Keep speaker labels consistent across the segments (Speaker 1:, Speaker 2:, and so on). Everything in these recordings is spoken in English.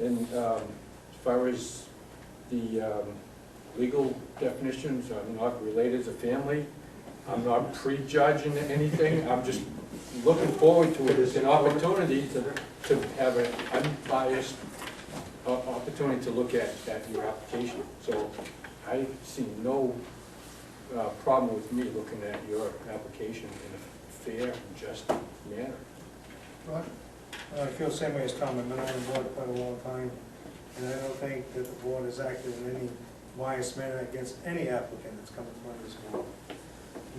Speaker 1: And um, as far as the um, legal definitions, I'm not related to family. I'm not prejudging anything. I'm just looking forward to it as an opportunity to, to have an unbiased o- opportunity to look at, at your application. So I see no uh, problem with me looking at your application in a fair and just manner.
Speaker 2: Well, Uh, I feel the same way as Tom, I've been on the board quite a long time, and I don't think that the board has acted in any biased manner against any applicant that's come in front of this board.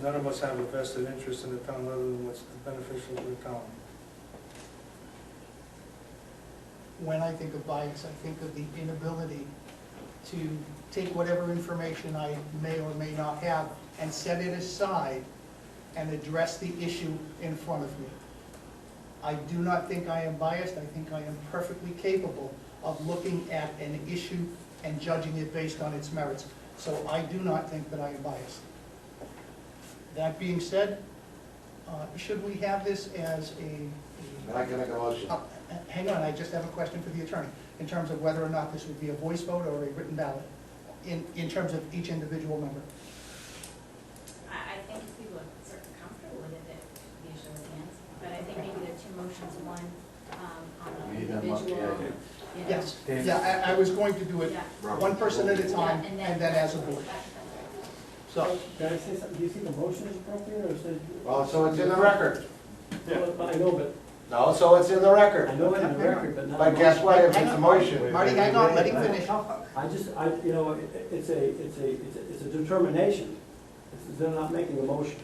Speaker 2: None of us have a vested interest in the town other than what's beneficial to the town.
Speaker 3: when I think of bias, I think of the inability to take whatever information I may or may not have and set it aside and address the issue in front of me. I do not think I am biased, I think I am perfectly capable of looking at an issue and judging it based on its merits. So I do not think that I am biased. That being said, uh, should we have this as a-
Speaker 4: I can make a motion.
Speaker 3: uh, Hang on, I just have a question for the attorney, in terms of whether or not this would be a voice vote or a written ballot, in, in terms of each individual member.
Speaker 5: I, I think if people are sort of comfortable with it, it usually ends. But I think maybe there are two motions, one um, on an
Speaker 4: Need them
Speaker 5: individual.
Speaker 4: up, yeah, yeah.
Speaker 5: you know.
Speaker 3: Yes, yeah, I, I was going to do it
Speaker 5: Yeah.
Speaker 3: one person at a time,
Speaker 5: Yeah,
Speaker 3: and then as a board,
Speaker 5: that- that's
Speaker 3: so.
Speaker 5: right.
Speaker 6: Can I say something, do you think the motion is appropriate, or is it?
Speaker 4: Well, so it's in the record.
Speaker 6: Well, I know, but,
Speaker 4: No, so it's in the
Speaker 6: I
Speaker 4: record.
Speaker 6: know it in the record, but not.
Speaker 4: But guess what, if it's a motion,
Speaker 3: Marty, hang on, let him finish.
Speaker 6: I just, I, you know, it- it's a, it's a, it's a- it's a determination, It's- they're not making a motion.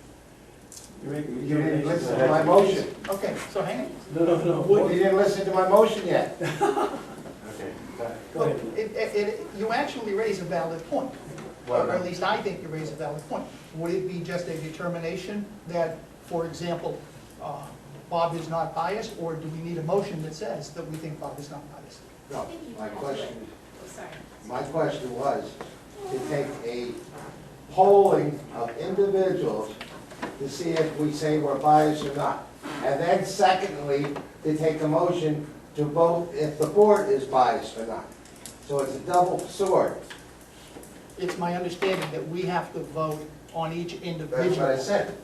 Speaker 6: You're making a
Speaker 4: you didn't listen to
Speaker 6: determination.
Speaker 4: my motion.
Speaker 3: Okay, so hang on.
Speaker 6: No, no, no.
Speaker 4: You didn't listen to my motion yet. Okay. uh,
Speaker 6: Go ahead.
Speaker 3: It, it, it- you actually raise a valid point, or at least I think you raise a valid point. Would it be just a determination that, for example, uh, Bob is not biased, or do we need a motion that says that we think Bob is not biased?
Speaker 4: No, my question,
Speaker 5: Oh, Sorry.
Speaker 4: my question was to take a polling of individuals to see if we say we're biased or not. And then secondly, to take a motion to vote if the board is biased or not. So it's a double sword.
Speaker 3: It's my understanding that we have to vote on each
Speaker 4: That's what I
Speaker 3: individual.
Speaker 4: said.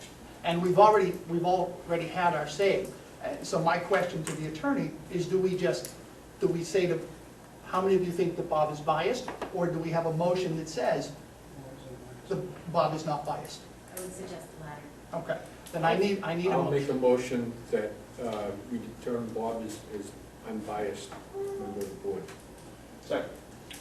Speaker 3: And we've already, we've already had our say. Uh, So my question to the attorney is, do we just, do we say to, how many of you think that Bob is biased? Or do we have a motion that says that Bob is not biased?
Speaker 5: I would suggest the latter.
Speaker 3: Okay, then I need, I need a
Speaker 1: I'll make
Speaker 3: motion.
Speaker 1: a motion that uh, we determine Bob is, is unbiased member of the board.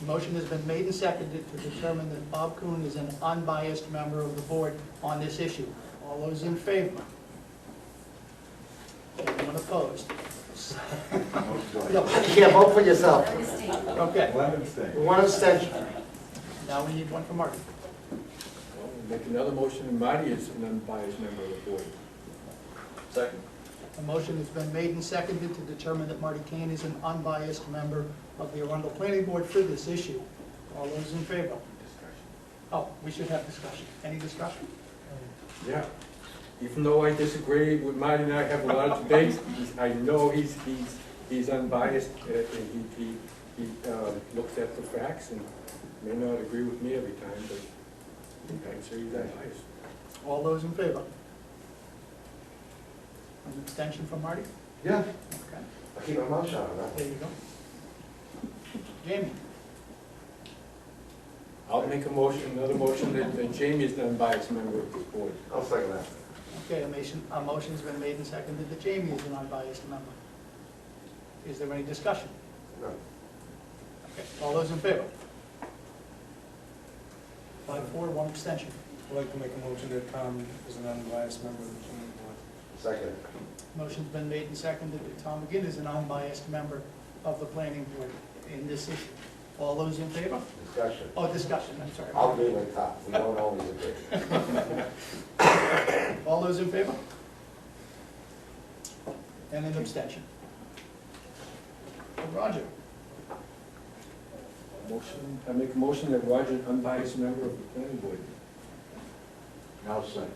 Speaker 3: Motion has been made and seconded to determine that Bob Kuhn is an unbiased member of the board on this issue. All those in favor? Anyone opposed? No.
Speaker 4: Yeah, vote for yourself.
Speaker 5: That is taken.
Speaker 3: Okay,
Speaker 4: One abstention.
Speaker 3: now we need one for Marty.
Speaker 1: Well, we'll Make another motion, and Marty is an unbiased member of the board.
Speaker 3: A motion has been made and seconded to determine that Marty Kane is an unbiased member of the Arundel Planning Board for this issue. All those in favor? Oh, we should have discussion. Any discussion?
Speaker 1: Yeah. Even though I disagree with Marty and I have a lot of debates, he's- I know he's, he's, he's unbiased, uh, and he, he, he uh, looks at the facts and may not agree with me every time, but I'm sure he's unbiased.
Speaker 3: All those in favor? An abstention from Marty?
Speaker 4: Yeah.
Speaker 3: Okay,
Speaker 4: I'll keep my mouth shut on that.
Speaker 3: there you go. Jamie,
Speaker 1: I'll make a motion, another motion that that Jamie is an unbiased member of the board.
Speaker 4: I'll second that.
Speaker 3: okay, a motion, a motion's been made and seconded that Jamie is an unbiased member. Is there any discussion?
Speaker 4: No.
Speaker 3: Okay, all those in favor? Five, four, one abstention.
Speaker 2: I'd like to make a motion that Tom is an unbiased member of the planning board.
Speaker 4: Second.
Speaker 3: Motion's been made and seconded that Tom McGinn is an unbiased member of the planning board in this issue. All those in favor?
Speaker 4: Discussion.
Speaker 3: Oh, discussion, I'm sorry.
Speaker 4: I'll be with Tom. We don't always agree.
Speaker 3: All those in favor? And an abstention. Roger,
Speaker 1: Motion, I make a motion that Roger, an unbiased member of the planning board.
Speaker 4: I'll second.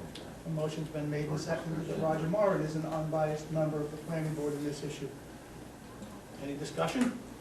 Speaker 3: a motion's been made and seconded that Roger Moran is an unbiased member of the planning board in this issue. Any discussion?